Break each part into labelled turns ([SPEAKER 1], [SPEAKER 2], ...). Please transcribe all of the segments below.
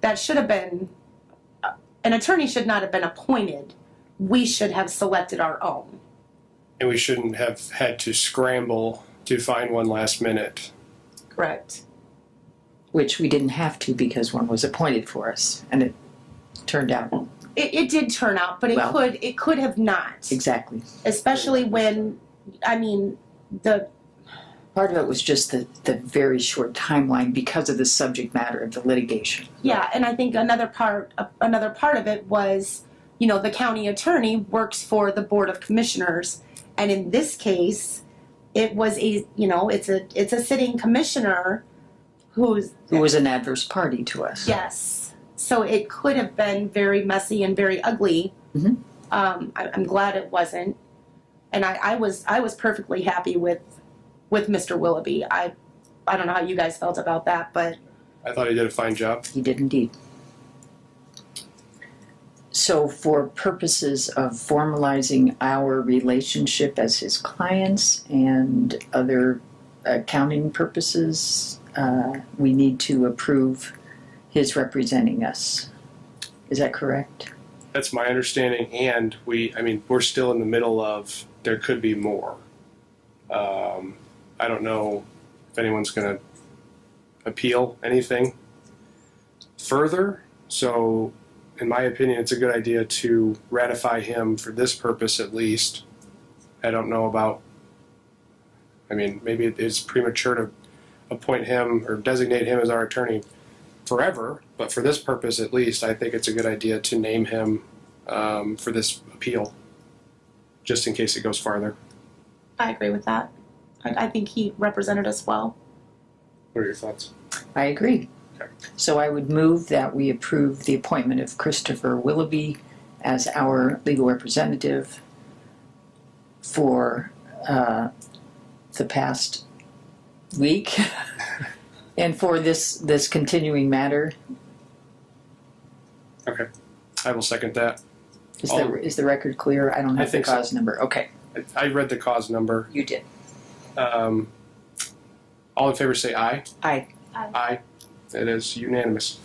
[SPEAKER 1] that should have been, uh, an attorney should not have been appointed. We should have selected our own.
[SPEAKER 2] And we shouldn't have had to scramble to find one last minute.
[SPEAKER 1] Correct.
[SPEAKER 3] which we didn't have to because one was appointed for us, and it turned out
[SPEAKER 1] It, it did turn out, but it
[SPEAKER 3] Well-
[SPEAKER 1] could, it could have not,
[SPEAKER 3] exactly.
[SPEAKER 1] especially when, I mean, the,
[SPEAKER 3] Part of it was just the, the very short timeline because of the subject matter of the litigation.
[SPEAKER 1] yeah, and I think another part, uh, another part of it was, you know, the county attorney works for the board of commissioners, and in this case, it was a, you know, it's a, it's a sitting commissioner who's
[SPEAKER 3] Who was an adverse party to us.
[SPEAKER 1] Yes. So it could have been very messy and very ugly.
[SPEAKER 3] Mhm.
[SPEAKER 1] Um, I, I'm glad it wasn't, and I, I was I was perfectly happy with with Mr. Willoughby. I I don't know how you guys felt about that, but
[SPEAKER 2] I thought he did a fine job.
[SPEAKER 3] He did indeed. So, for purposes of formalizing our relationship as his clients and other accounting purposes, uh, we need to approve his representing us. Is that correct?
[SPEAKER 2] That's my understanding. And we, I mean, we're still in the middle of, there could be more. Um, I don't know if anyone's going to appeal anything further. So, in my opinion, it's a good idea to ratify him for this purpose at least. I don't know about, I mean, maybe it is premature to appoint him or designate him as our attorney forever, but for this purpose at least, I think it's a good idea to name him um, for this appeal, just in case it goes farther.
[SPEAKER 1] I agree with that. I, I think he represented us well.
[SPEAKER 2] What are your thoughts?
[SPEAKER 3] I agree.
[SPEAKER 2] Okay.
[SPEAKER 3] So, I would move that we approve the appointment of Christopher Willoughby as our legal representative for uh, the past week and for this this continuing matter.
[SPEAKER 2] I will second that.
[SPEAKER 3] Is, the, is the record clear? I don't
[SPEAKER 2] Oh. I
[SPEAKER 3] have the
[SPEAKER 2] think so.
[SPEAKER 3] cause number. Okay,
[SPEAKER 2] I, I read the cause number.
[SPEAKER 3] you did.
[SPEAKER 2] Um, all in favor say aye.
[SPEAKER 3] Aye.
[SPEAKER 1] Aye.
[SPEAKER 2] Aye. It is unanimous.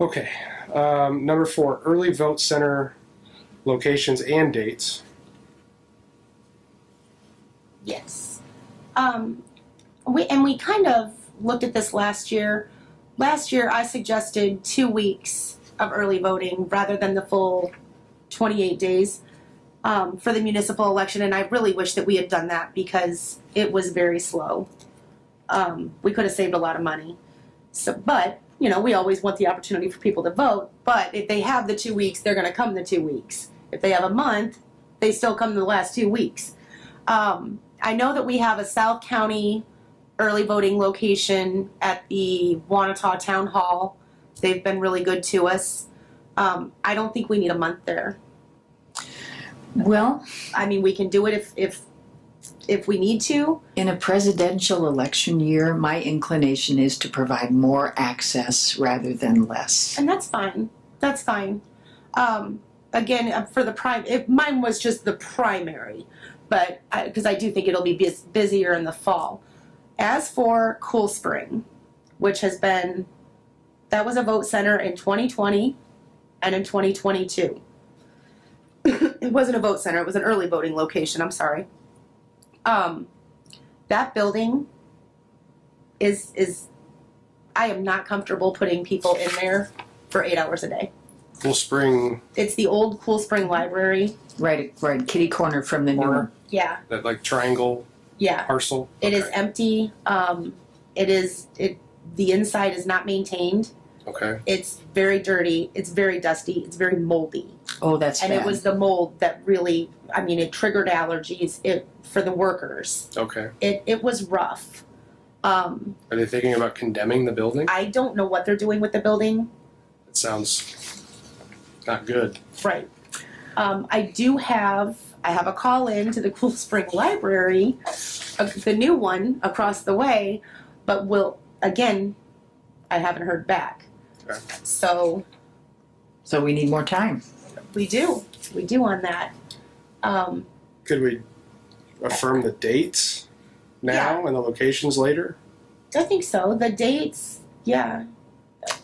[SPEAKER 2] Okay. Um, number four early vote center locations and dates.
[SPEAKER 1] Yes. Um, we and we kind of looked at this last year. Last year, I suggested two weeks of early voting rather than the full 28 days um, for the municipal election, and I really wish that we had done that because it was very slow. Um, we could have saved a lot of money. So, but you know, we always want the opportunity for people to vote. But if they have the two weeks, they're going to come the two weeks. If they have a month, they still come the last two weeks. Um, I know that we have a South County early voting location at the Wanata Town Hall. They've been really good to us. Um, I don't think we need a month there.
[SPEAKER 3] Well,
[SPEAKER 1] I mean, we can do it if if if we need to.
[SPEAKER 3] In a presidential election year, my inclination is to provide more access rather than less.
[SPEAKER 1] and that's fine. That's fine. Um, again, uh, for the prime, if mine was just the primary, but because I, do think it'll be bus- busier in the fall. As for Cool Spring, which has been that was a vote center in 2020 and in 2022. it wasn't a vote center; it was an early voting location. I'm sorry. Um, that building is is I am not comfortable putting people in there for eight hours a day.
[SPEAKER 2] Cool Spring,
[SPEAKER 1] It's the old Cool Spring Library.
[SPEAKER 3] Right, right, kitty corner from the new
[SPEAKER 2] Corner.
[SPEAKER 1] Yeah,
[SPEAKER 2] that like triangle
[SPEAKER 1] yeah.
[SPEAKER 2] parcel.
[SPEAKER 1] It is
[SPEAKER 2] Okay.
[SPEAKER 1] empty. Um, it is it. The inside is not maintained.
[SPEAKER 2] Okay.
[SPEAKER 1] It's very dirty. It's very dusty. It's very moldy.
[SPEAKER 3] Oh, that's
[SPEAKER 1] and
[SPEAKER 3] bad.
[SPEAKER 1] it was the mold that really. I mean, it triggered allergies. It for the workers.
[SPEAKER 2] Okay.
[SPEAKER 1] It it was rough. Um,
[SPEAKER 2] Are they thinking about condemning the building?
[SPEAKER 1] I don't know what they're doing with the building.
[SPEAKER 2] It sounds not good.
[SPEAKER 1] Right. Um, I do have, I have a call in to the Cool Spring Library, uh, the new one across the way, but will, again, I haven't heard back.
[SPEAKER 2] Okay.
[SPEAKER 1] So
[SPEAKER 3] so we need more time.
[SPEAKER 1] we do, we do on that. Um,
[SPEAKER 2] Could we affirm the dates now and the locations later?
[SPEAKER 1] I think so. The dates, yeah.